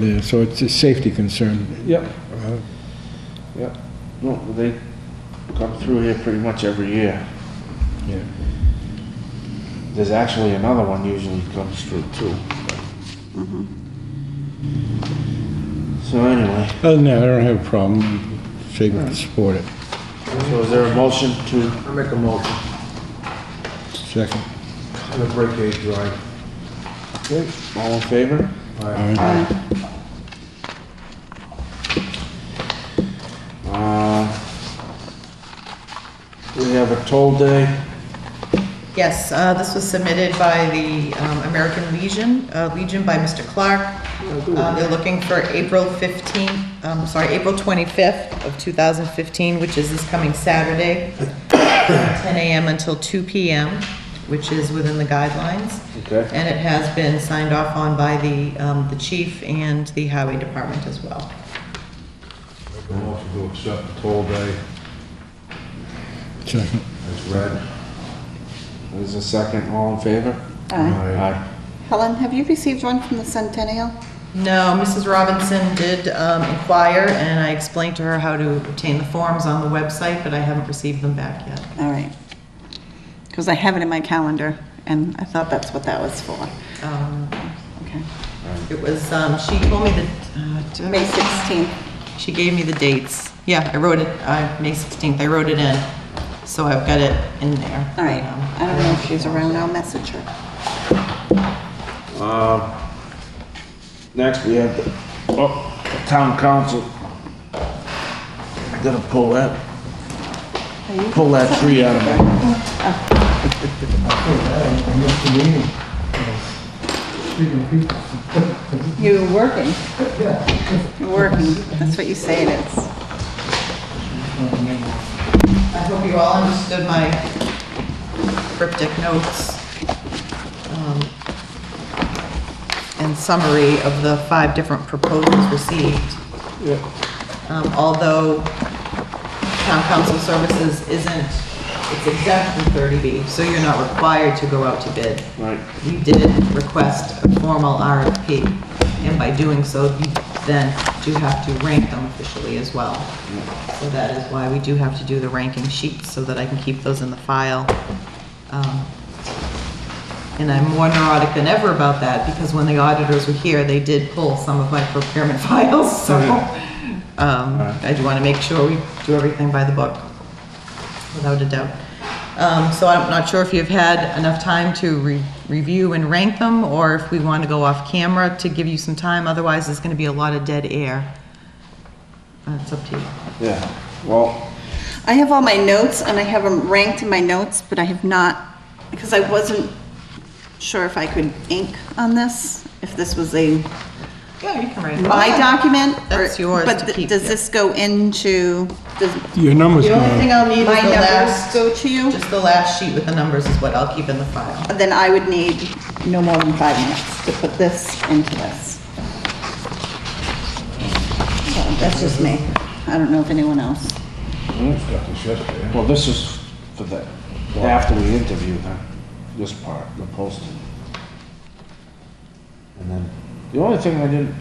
there, so it's a safety concern. Yep. Uh, Yep. No, they come through here pretty much every year. Yeah. There's actually another one usually comes through too. So anyway, Other than that, I don't have a problem, Shake it, support it, so is there a motion to, I make a motion second. on the break aid drive. all in favor? Aye. Aye. Uh, We have a toll day. Yes, uh, this was submitted by the um, American Legion, uh, Legion by Mr. Clark. Uh, They're looking for April 15th, um, sorry, April 25th of 2015, which is this coming Saturday, from 10 a.m. until 2 p.m., which is within the guidelines. Okay. And it has been signed off on by the um, the chief and the highway department as well. Make a motion to accept the toll day Second. as read. There's a second, all in favor? Aye. Aye. Helen, have you received one from the Centennial? No, Mrs. Robinson did um, inquire, and I explained to her how to obtain the forms on the website, but I haven't received them back yet. All right. Because I have it in my calendar, and I thought that's what that was for. Um, Okay. It was, um, she told me that, uh, May 16th. she gave me the dates. Yeah, I wrote it, uh, May 16th, I wrote it in, so I've got it in there. All right. Um, I don't know if she's around. I'll message her. Um, Next, we have the oh, town council. Gotta pull that, pull that tree out of my, You're working. You're working. That's what you say it is. I hope you all understood my cryptic notes um, and summary of the five different proposals received. Um, Although town council services isn't, it's exempt from 30B, so you're not required to go out to bid. right, We did request a formal RFP, and by doing so, you then do have to rank them officially as well. So that is why we do have to do the ranking sheets, so that I can keep those in the file. Um, And I'm more neurotic than ever about that, because when the auditors were here, they did pull some of my procurement files, so um, I do want to make sure we do everything by the book without a doubt. Um, So I'm not sure if you've had enough time to re- review and rank them, or if we want to go off camera to give you some time, otherwise there's going to be a lot of dead air. Uh, It's up to you. yeah, well, I have all my notes, and I have them ranked in my notes, but I have not, because I wasn't sure if I could ink on this, if this was a Yeah, you can write my document? or- That's yours but to th- keep, Does yeah. this go into, does Your number's The only gone. thing I'll need is my the numbers last, go to you? just the last sheet with the numbers is what I'll keep in the file. Then I would need no more than five minutes to put this into this. So That's just me. I don't know if anyone else. Got this yesterday. well, this is for the, after we interview them, this part, the posting. And then, the only thing I didn't,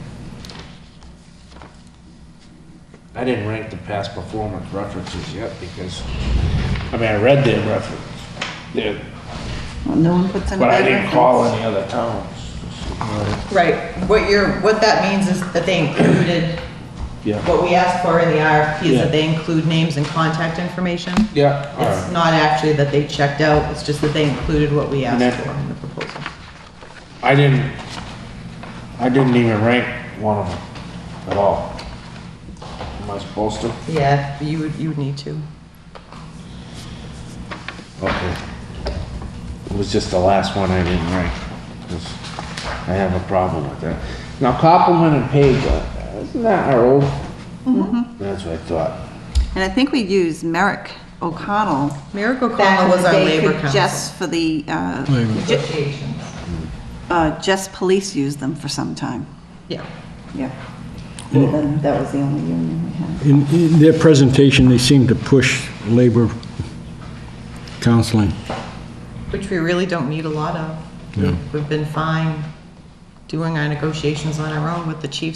I didn't rank the past performance references yet, because, I mean, I read their reference, their Well, no one puts in. But I bad didn't reference. call any other towns. Right, what you're, what that means is that they included, Yeah. what we asked for in the RFP is Yeah. that they include names and contact information. Yeah, all It's right. not actually that they checked out, it's just that they included what we And asked that- for in the proposal. I didn't, I didn't even rank one of them at all. Am I supposed to? Yeah, you would, you would need to. Okay. It was just the last one I didn't rank, 'cause I have a problem with that. Now, Copeland and Page, uh, isn't that our old? That's what I thought. And I think we used Merrick O'Connell. Merrick back in O'Connell was the our day labor for- council. Just for the, uh, Labor. Negotiations. uh, just police used them for some time. Yeah. Yeah. That was the only union we had. In, in their presentation, they seem to push labor counseling. Which we really don't need a lot of. Yeah. We've been fine doing our negotiations on our own with the chiefs